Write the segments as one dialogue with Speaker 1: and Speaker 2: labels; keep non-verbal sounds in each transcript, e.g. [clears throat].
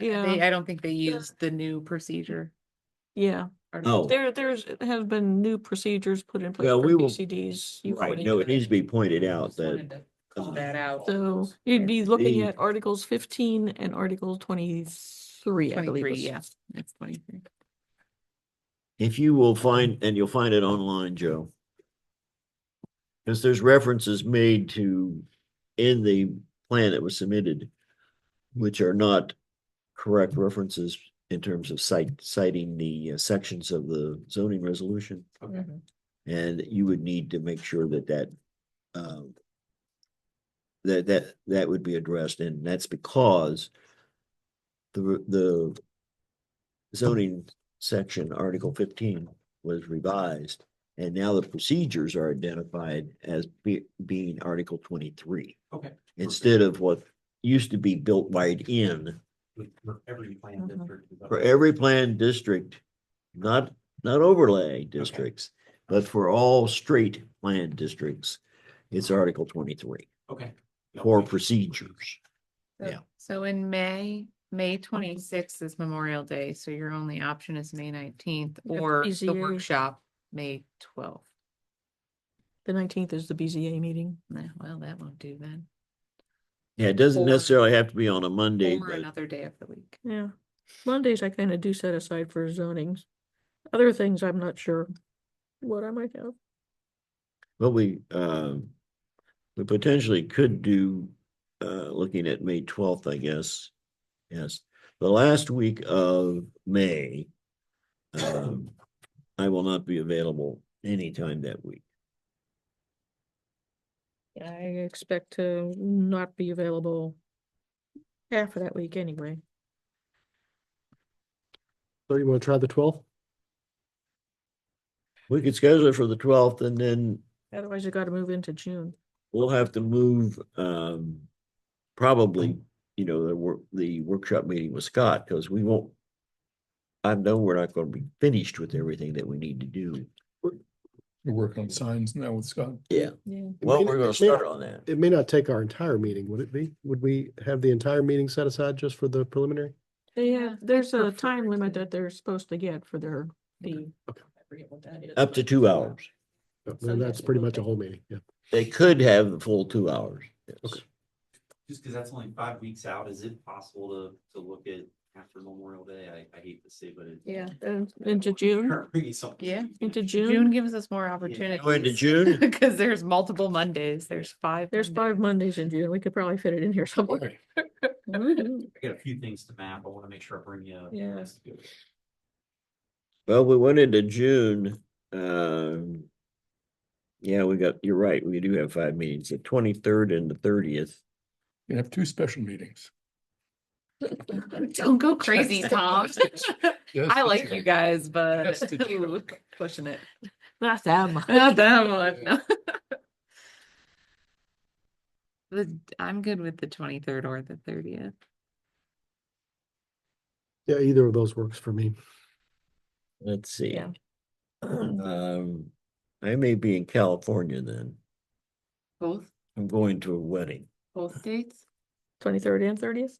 Speaker 1: Yeah,
Speaker 2: They, I don't think they use the new procedure.
Speaker 1: yeah.
Speaker 2: or-
Speaker 3: No.
Speaker 1: There, there's, have been new procedures put in place
Speaker 3: Well,
Speaker 1: for
Speaker 3: we will-
Speaker 1: PCDs. you
Speaker 3: Right,
Speaker 1: already
Speaker 3: no,
Speaker 1: know
Speaker 3: it needs to be pointed out
Speaker 2: Just wanted
Speaker 3: that,
Speaker 2: to Call that out.
Speaker 1: So you'd be looking
Speaker 3: The-
Speaker 1: at Articles fifteen and Article twenty-three, I believe.
Speaker 2: Twenty-three,
Speaker 1: was-
Speaker 2: yeah, it's twenty-three.
Speaker 3: if you will find, and you'll find it online, Joe. Because there's references made to, in the plan that was submitted, which are not correct references in terms of cite, citing the uh, sections of the zoning resolution.
Speaker 4: Okay.
Speaker 2: Mhm.
Speaker 3: And you would need to make sure that that, um, that, that, that would be addressed, and that's because the, re- the zoning section, Article fifteen, was revised, and now the procedures are identified as be, being Article twenty-three,
Speaker 4: Okay.
Speaker 3: instead of what used to be built right in,
Speaker 4: With- For every plan
Speaker 2: Mm-hmm.
Speaker 1: Mhm.
Speaker 4: district. is up
Speaker 3: for
Speaker 4: there.
Speaker 3: every planned district, not, not overlay districts, but for all straight planned districts, it's Article twenty-three
Speaker 4: Okay. Yeah,
Speaker 3: for
Speaker 4: okay.
Speaker 3: procedures.
Speaker 2: So-
Speaker 3: Yeah.
Speaker 2: So in May, May twenty-sixth is Memorial Day, so your only option is May nineteenth
Speaker 1: That's
Speaker 2: or the
Speaker 1: easier.
Speaker 2: workshop, May twelfth.
Speaker 1: The nineteenth is the BZA meeting.
Speaker 2: Well, that won't do then.
Speaker 3: Yeah, it doesn't
Speaker 2: Or-
Speaker 3: necessarily have to be on a Monday,
Speaker 2: Or
Speaker 3: but.
Speaker 2: another day of the week.
Speaker 1: Yeah. Mondays I kind of do set aside for zonings. Other things, I'm not sure what I might have.
Speaker 3: Well, we, um, we potentially could do, uh, looking at May twelfth, I guess. Yes, the last week of May. Um, I will not be available anytime that week.
Speaker 1: I expect to not be available half of that week anyway.
Speaker 5: So you want to try the twelfth?
Speaker 3: We could schedule it for the twelfth and then
Speaker 1: Otherwise, you gotta move into June.
Speaker 3: we'll have to move, um. Probably, you know, the work, the workshop meeting with Scott, because we won't. I know we're not gonna be finished with everything that we need to do.
Speaker 6: You're working on signs now with Scott.
Speaker 3: Yeah.
Speaker 1: Yeah.
Speaker 3: Well,
Speaker 5: mean,
Speaker 3: we're
Speaker 5: it-
Speaker 3: gonna
Speaker 5: it may-
Speaker 3: start on that.
Speaker 5: It may not take our entire meeting, would it be? Would we have the entire meeting set aside just for the preliminary?
Speaker 1: They
Speaker 2: Yeah,
Speaker 1: have, there's
Speaker 2: I'd
Speaker 1: a time
Speaker 2: prefer
Speaker 1: limit
Speaker 2: to-
Speaker 1: that they're supposed to get for their, the,
Speaker 2: I forget what that is.
Speaker 3: Up to two hours.
Speaker 5: No,
Speaker 2: So
Speaker 5: Then that's
Speaker 2: yes, it
Speaker 5: pretty
Speaker 2: will
Speaker 5: much a
Speaker 2: take-
Speaker 5: whole meeting, yeah.
Speaker 3: They could have the full two hours. yes.
Speaker 5: Okay.
Speaker 4: Just because that's only five weeks out, is it possible to, to look at after Memorial Day? I, I hate to say, but it.
Speaker 2: Yeah.
Speaker 1: uh, into June,
Speaker 4: Bringing something.
Speaker 2: Yeah.
Speaker 1: into
Speaker 2: June
Speaker 1: June.
Speaker 2: gives us more
Speaker 3: Go into
Speaker 2: opportunities. [laughs]
Speaker 3: June,
Speaker 2: Because there's multiple Mondays, there's five.
Speaker 1: There's
Speaker 2: Mondays.
Speaker 1: five Mondays in June. We could probably fit it in here
Speaker 2: [laughs]
Speaker 1: somewhere.
Speaker 2: Woo-hoo.
Speaker 4: I got a few things to map. I want to make sure I bring you.
Speaker 1: Yeah.
Speaker 3: well, we went into June, um. Yeah, we got, you're right, we do have five meetings, the twenty-third and the thirtieth.
Speaker 6: You have two
Speaker 2: [laughs]
Speaker 6: special meetings.
Speaker 2: Don't go crazy,
Speaker 1: [laughs]
Speaker 2: Tom. I like you guys, but
Speaker 6: Just
Speaker 2: [laughs]
Speaker 6: a joke.
Speaker 2: pushing it.
Speaker 1: Not that [laughs] much.
Speaker 2: Not that much. no. [laughs] The, I'm good with the twenty-third or the thirtieth.
Speaker 5: Yeah, either of those works for me.
Speaker 3: Let's see,
Speaker 1: Yeah.
Speaker 3: [clears throat] um, I may be in California then.
Speaker 2: Both,
Speaker 3: I'm going to a wedding.
Speaker 2: both [laughs] dates?
Speaker 1: Twenty-third and thirtieth?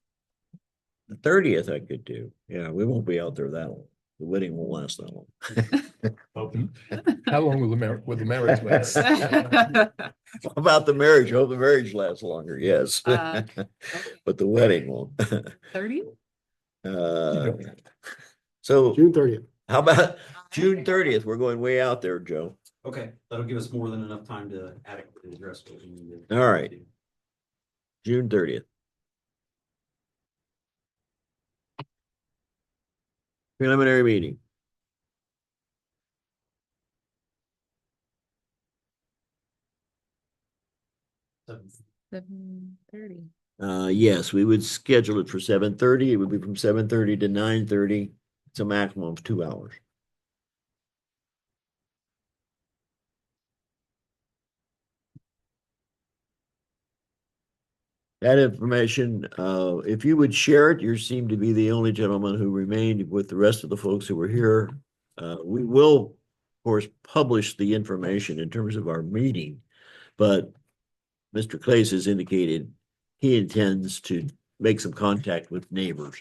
Speaker 3: The thirtieth I could do. Yeah, we won't be out there that long. The wedding won't last that long. [laughs]
Speaker 4: Open.
Speaker 6: How long will the marriage, will the
Speaker 2: [laughs]
Speaker 6: marriage last?
Speaker 2: Okay.
Speaker 3: About the marriage, hope the marriage lasts longer, yes.
Speaker 2: Uh,
Speaker 3: [laughs] But the wedding won't. [laughs]
Speaker 2: Thirty?
Speaker 3: Uh, so.
Speaker 5: June thirtieth.
Speaker 3: How about June
Speaker 2: okay.
Speaker 3: thirtieth? We're going way out there, Joe.
Speaker 4: Okay, that'll give us more than enough time to adequately address what we need. to-
Speaker 3: All right. June thirtieth. Preliminary meeting.
Speaker 4: So-
Speaker 2: Seven thirty.
Speaker 3: Uh, yes, we would schedule it for seven thirty. It would be from seven thirty to nine thirty. It's a maximum of two hours. That information, uh, if you would share it, you seem to be the only gentleman who remained with the rest of the folks who were here. Uh, we will, of course, publish the information in terms of our meeting, but Mr. Clays has indicated he intends to make some contact with neighbors